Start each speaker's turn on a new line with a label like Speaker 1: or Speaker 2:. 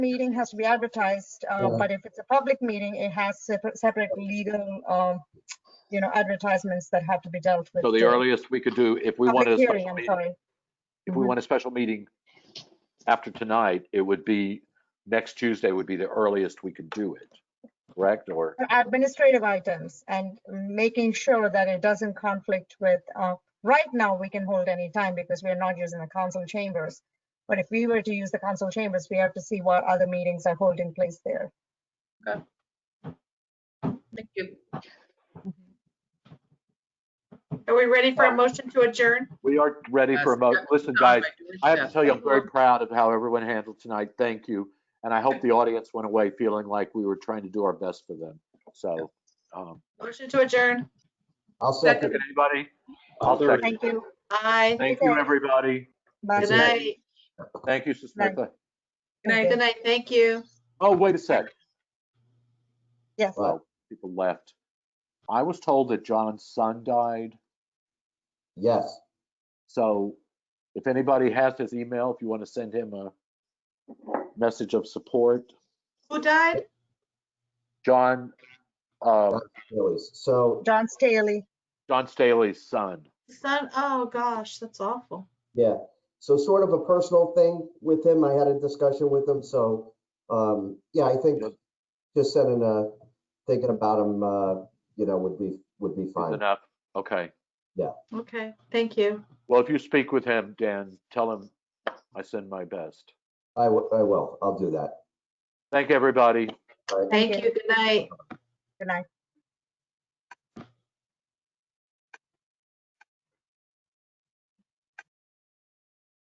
Speaker 1: meeting has to be advertised, uh,
Speaker 2: Yeah.
Speaker 1: but if it's a public meeting, it has separate, separate legal, um, you know, advertisements that have to be dealt with.
Speaker 3: So the
Speaker 1: during-
Speaker 3: earliest we could do, if we
Speaker 1: Public
Speaker 3: wanted a
Speaker 1: hearing,
Speaker 3: special
Speaker 1: I'm
Speaker 3: meeting,
Speaker 1: sorry.
Speaker 3: if we want a special meeting after tonight, it would be, next Tuesday would be the earliest we could do it, correct? Or,
Speaker 1: Administrative items and making sure that it doesn't conflict with, uh, right now, we can hold any time because we're not using the council chambers. But if we were to use the council chambers, we have to see what other meetings are holding place there.
Speaker 4: Thank you. Mm-hmm. Are we ready for a motion to adjourn?
Speaker 3: we are ready for a mo, listen, guys, I have to tell you, I'm very proud of how everyone handled tonight. Thank you. And I hope the audience went away feeling like we were trying to do our best for them. So, um,
Speaker 4: Motion to adjourn.
Speaker 2: I'll
Speaker 3: second
Speaker 2: second.
Speaker 3: anybody? I'll
Speaker 2: Third.
Speaker 3: second.
Speaker 1: Thank you.
Speaker 4: Aye.
Speaker 3: Thank you, everybody.
Speaker 1: Bye.
Speaker 4: Good
Speaker 2: Good night.
Speaker 4: night.
Speaker 3: Thank you, Sister
Speaker 1: Night.
Speaker 3: Nicola.
Speaker 4: Good night. Good night. Thank you.
Speaker 3: Oh, wait a sec.
Speaker 1: Yes.
Speaker 2: Wow.
Speaker 3: Well, people left. I was told that John's son died.
Speaker 2: Yes,
Speaker 3: So if anybody has his email, if you want to send him a message of support,
Speaker 4: Who died?
Speaker 3: John, uh,
Speaker 2: Phillies. So,
Speaker 1: John Staley.
Speaker 3: John Staley's son.
Speaker 4: Son, oh gosh, that's awful.
Speaker 2: yeah, so sort of a personal thing with him. I had a discussion with him, so, um, yeah, I think
Speaker 3: Yep.
Speaker 2: just sending a, thinking about him, uh, you know, would be, would be
Speaker 3: is
Speaker 2: fine.
Speaker 3: enough. Okay.
Speaker 4: Okay, thank you.
Speaker 3: Well, if you speak with him, Dan, tell him I send my best.
Speaker 2: I wi- I will. I'll do that.
Speaker 3: Thank everybody.
Speaker 4: Thank
Speaker 1: Thank
Speaker 4: you. Good night.
Speaker 1: Good night.